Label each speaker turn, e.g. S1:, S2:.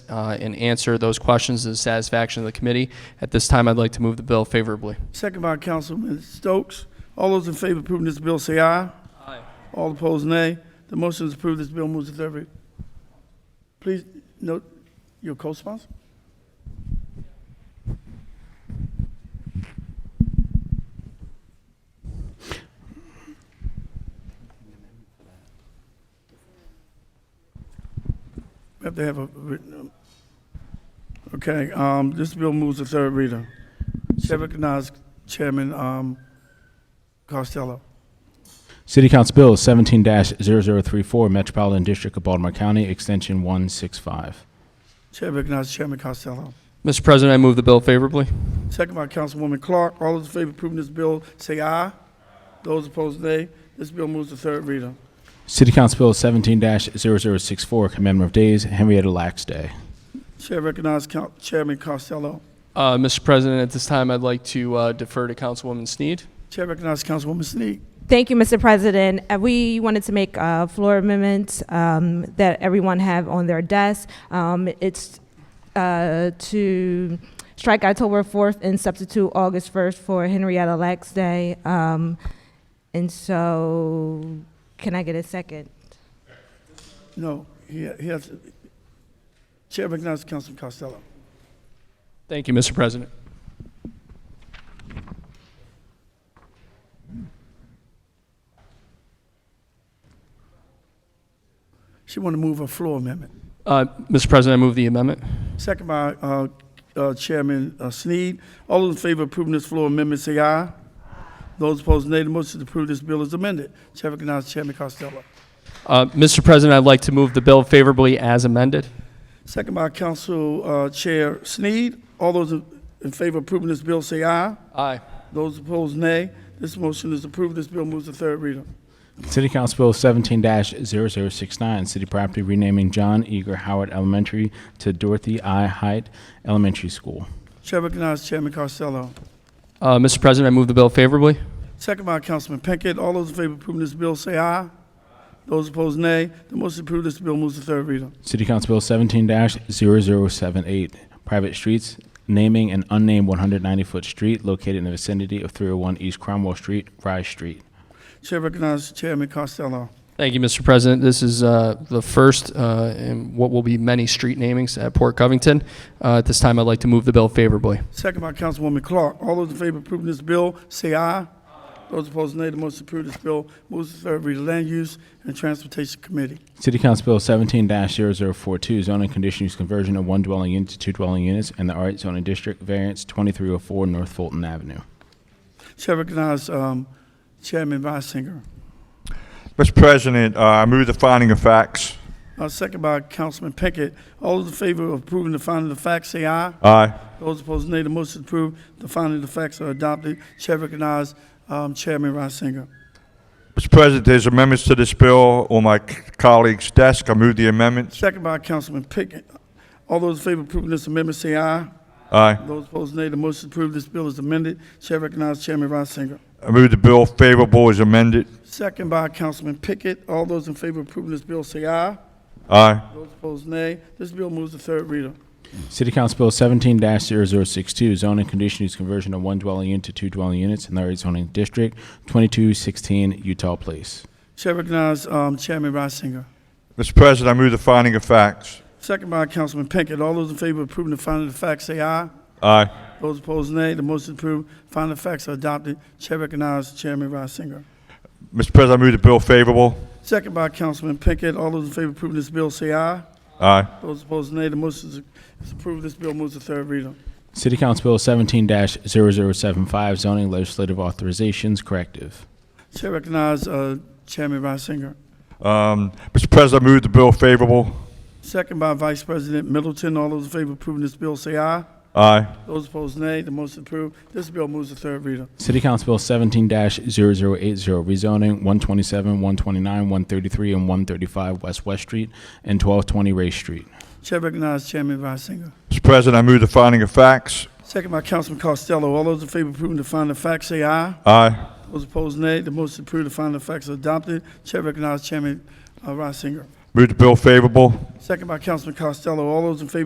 S1: uh, and answer those questions to the satisfaction of the committee. At this time, I'd like to move the bill favorably.
S2: Second by Councilman Stokes. All those in favor of approving this bill say aye.
S1: Aye.
S2: All opposed, nay. The motion is approved. This bill moves to third read. Please note your co-sponsor. We have to have a written, um, okay, um, this bill moves to third reader. Chair recognizes Chairman, um, Costello.
S3: City Council Bill 17-0034, Metropolitan District of Baltimore County, Extension 165.
S2: Chair recognizes Chairman Costello.
S1: Mr. President, I move the bill favorably.
S2: Second by Councilwoman Clark. All those in favor of approving this bill, say aye. Those opposed, nay. This bill moves to third reader.
S3: City Council Bill 17-0064, Commemorative Days, Henrietta Lacks Day.
S2: Chair recognizes Coun- Chairman Costello.
S1: Uh, Mr. President, at this time, I'd like to uh, defer to Councilwoman Snead.
S2: Chair recognizes Councilwoman Snead.
S4: Thank you, Mr. President. Uh, We wanted to make a floor amendment um, that everyone have on their desk. Um, It's uh, to strike October 4th and substitute August 1st for Henrietta Lacks Day. Um, And so, can I get a second?
S2: No, he, he has, Chair recognizes Councilman Costello.
S1: Thank you, Mr. President.
S2: She want to move a floor amendment.
S1: Uh, Mr. President, I move the amendment.
S2: Second by, uh, uh, Chairman uh, Snead. All those in favor of approving this floor amendment, say aye. Those opposed, nay. The motion to approve this bill is amended. Chair recognizes Chairman Costello.
S1: Uh, Mr. President, I'd like to move the bill favorably as amended.
S2: Second by Council uh, Chair Sneed. All those in- in favor of approving this bill say aye.
S1: Aye.
S2: Those opposed, nay. This motion is approved. This bill moves to third reader.
S3: City Council Bill 17-0069, City Property Renaming John Eager Howard Elementary to Dorothy I. Height Elementary School.
S2: Chair recognizes Chairman Costello.
S1: Uh, Mr. President, I move the bill favorably.
S2: Second by Councilman Pinkett. All those in favor of approving this bill say aye. Those opposed, nay. The motion is approved. This bill moves to third reader.
S3: City Council Bill 17-0078, Private Streets, Naming an Unnamed 190-Foot Street Located in the Vicinity of 301 East Cromwell Street, Rye Street.
S2: Chair recognizes Chairman Costello.
S1: Thank you, Mr. President. This is uh, the first uh, in what will be many street namings at Port Covington. Uh, At this time, I'd like to move the bill favorably.
S2: Second by Councilwoman Clark. All those in favor of approving this bill say aye. Those opposed, nay. The motion is approved. This bill moves to third reader. Land Use and Transportation Committee.
S3: City Council Bill seventeen 42 zoning condition use conversion of one dwelling unit to two dwelling units in the R eight zoning district, variance twenty-three oh four North Fulton Avenue.
S2: Chair recognizes um, Chairman Reisinger.
S5: Mr. President, uh, I move the finding of facts.
S2: Uh, second by Councilman Pickett. All those in favor of approving the finding of facts, say aye.
S5: Aye.
S2: Those opposed, nay. The motion is approved. The finding of facts are adopted. Chair recognizes um, Chairman Reisinger.
S5: Mr. President, there's amendments to this bill on my c- colleague's desk. I move the amendments.
S2: Second by Councilman Pickett. All those in favor of approving this amendment, say aye.
S5: Aye.
S2: Those opposed, nay. The motion is approved. This bill is amended. Chair recognizes Chairman Reisinger.
S5: I move the bill favorable as amended.
S2: Second by Councilman Pickett. All those in favor of approving this bill, say aye.
S5: Aye.
S2: Those opposed, nay. This bill moves to third reader.
S3: City Council Bill seventeen 62 zoning condition use conversion of one dwelling unit to two dwelling units in the R eight zoning district, twenty-two sixteen Utah Place.
S2: Chair recognizes um, Chairman Reisinger.
S5: Mr. President, I move the finding of facts.
S2: Second by Councilman Pinkett. All those in favor of approving the finding of facts, say aye.
S5: Aye.
S2: Those opposed, nay. The motion is approved. Finding of facts are adopted. Chair recognizes Chairman Reisinger.
S5: Mr. President, I move the bill favorable.
S2: Second by Councilman Pinkett. All those in favor of approving this bill, say aye.
S5: Aye.
S2: Those opposed, nay. The motion is- is approved. This bill moves to third reader.
S3: City Council Bill seventeen 75 zoning legislative authorizations corrective.
S2: Chair recognizes uh, Chairman Reisinger.
S5: Um, Mr. President, I move the bill favorable.
S2: Second by Vice President Middleton. All those in favor of approving this bill, say aye.
S5: Aye.
S2: Those opposed, nay. The motion is approved. This bill moves to third reader.
S3: City Council Bill seventeen 80 rezoning one twenty-seven, one twenty-nine, one thirty-three, and one thirty-five West West Street and twelve twenty Ray Street.
S2: Chair recognizes Chairman Reisinger.
S5: Mr. President, I move the finding of facts.
S2: Second by Councilman Costello. All those in favor of approving the finding of facts, say aye.
S5: Aye.
S2: Those opposed, nay. The motion is approved. The finding of facts are adopted. Chair recognizes Chairman uh, Reisinger.
S5: Move the bill favorable.
S2: Second by Councilman Costello. All those in favor